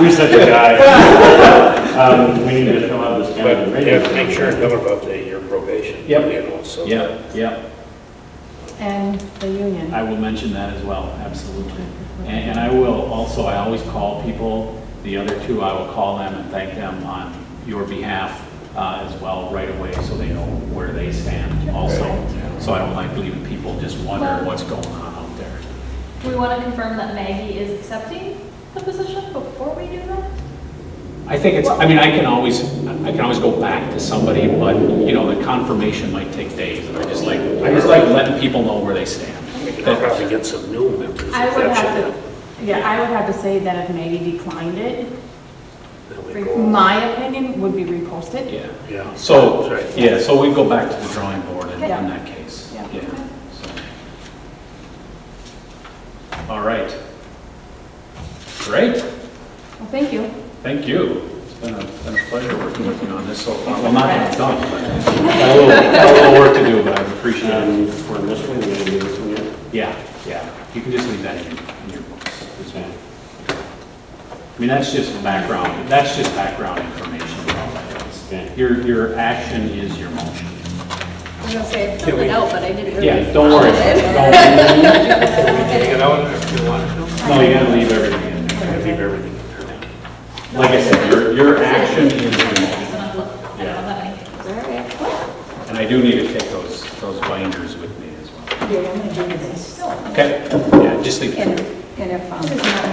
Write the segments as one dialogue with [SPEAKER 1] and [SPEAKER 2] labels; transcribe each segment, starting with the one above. [SPEAKER 1] You're such a guy. Um, we need to fill out this
[SPEAKER 2] But
[SPEAKER 1] calendar.
[SPEAKER 2] you have to make sure and tell her about the, your probation.
[SPEAKER 3] Yep.
[SPEAKER 2] You know, so that-
[SPEAKER 3] Yeah, yeah,
[SPEAKER 4] And the union.
[SPEAKER 3] I will mention that as well, absolutely. And, and I will also, I always call people, the other two, I will call them and thank them on your behalf uh, as well right away, so they know where they stand also. So I don't like leaving people just wondering what's going on out there.
[SPEAKER 5] Do we want to confirm that Maggie is accepting the position before we do that?
[SPEAKER 3] I think it's, I mean, I can always, I can always go back to somebody, but, you know, the confirmation might take days. And I just like, I just like letting people know where they stand.
[SPEAKER 2] We could probably get some new members. if
[SPEAKER 4] I would
[SPEAKER 2] that's
[SPEAKER 4] have
[SPEAKER 2] it.
[SPEAKER 4] to, yeah, I would have to say that if Maggie declined it,
[SPEAKER 2] Then we go-
[SPEAKER 4] my opinion would be reposted.
[SPEAKER 3] Yeah.
[SPEAKER 2] Yeah.
[SPEAKER 3] So,
[SPEAKER 2] That's right.
[SPEAKER 3] yeah, so we go back to the drawing board in in
[SPEAKER 4] Yeah.
[SPEAKER 3] that case.
[SPEAKER 4] Yeah.
[SPEAKER 3] so. All right. Great,
[SPEAKER 4] Well, thank you.
[SPEAKER 3] thank you. It's been a, been a pleasure working with you on this so far. Well, not that it's done, but a little, a little work to do, but I appreciate it.
[SPEAKER 1] Um, for this one, we're gonna do this one yet?
[SPEAKER 3] Yeah, yeah, you can just leave that in, in your books as well. I mean, that's just background, that's just background information about that is.
[SPEAKER 1] Okay.
[SPEAKER 3] Your, your action is your motion.
[SPEAKER 5] I was gonna say, I filled it out, but I didn't really.
[SPEAKER 3] Yeah, don't worry, about it. Don't worry.
[SPEAKER 2] Take it out if you want to.
[SPEAKER 3] No, you gotta leave everything in there.
[SPEAKER 2] Leave everything in there.
[SPEAKER 3] Like I said, your, your action is your
[SPEAKER 5] I
[SPEAKER 3] motion.
[SPEAKER 5] don't know that I-
[SPEAKER 3] And I do need to take those, those binders with me as well. Okay, yeah, just leave
[SPEAKER 6] And
[SPEAKER 3] it.
[SPEAKER 6] if, and if, um,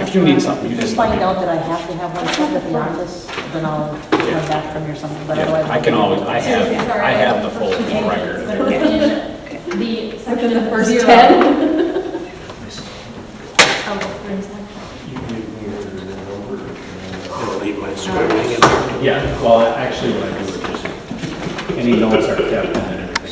[SPEAKER 3] If you need something, you
[SPEAKER 6] if you
[SPEAKER 3] just.
[SPEAKER 6] find out that I have to have one sent to the office, then I'll come back from here something, but
[SPEAKER 3] Yeah,
[SPEAKER 6] otherwise.
[SPEAKER 3] I can always, I have, I have the full record.
[SPEAKER 5] The section, the first
[SPEAKER 4] Zero.
[SPEAKER 5] ten. Oh, there's like-
[SPEAKER 2] I'm gonna leave my scribbling in there.
[SPEAKER 3] Yeah, well, actually, what I do is just, any notes are kept and then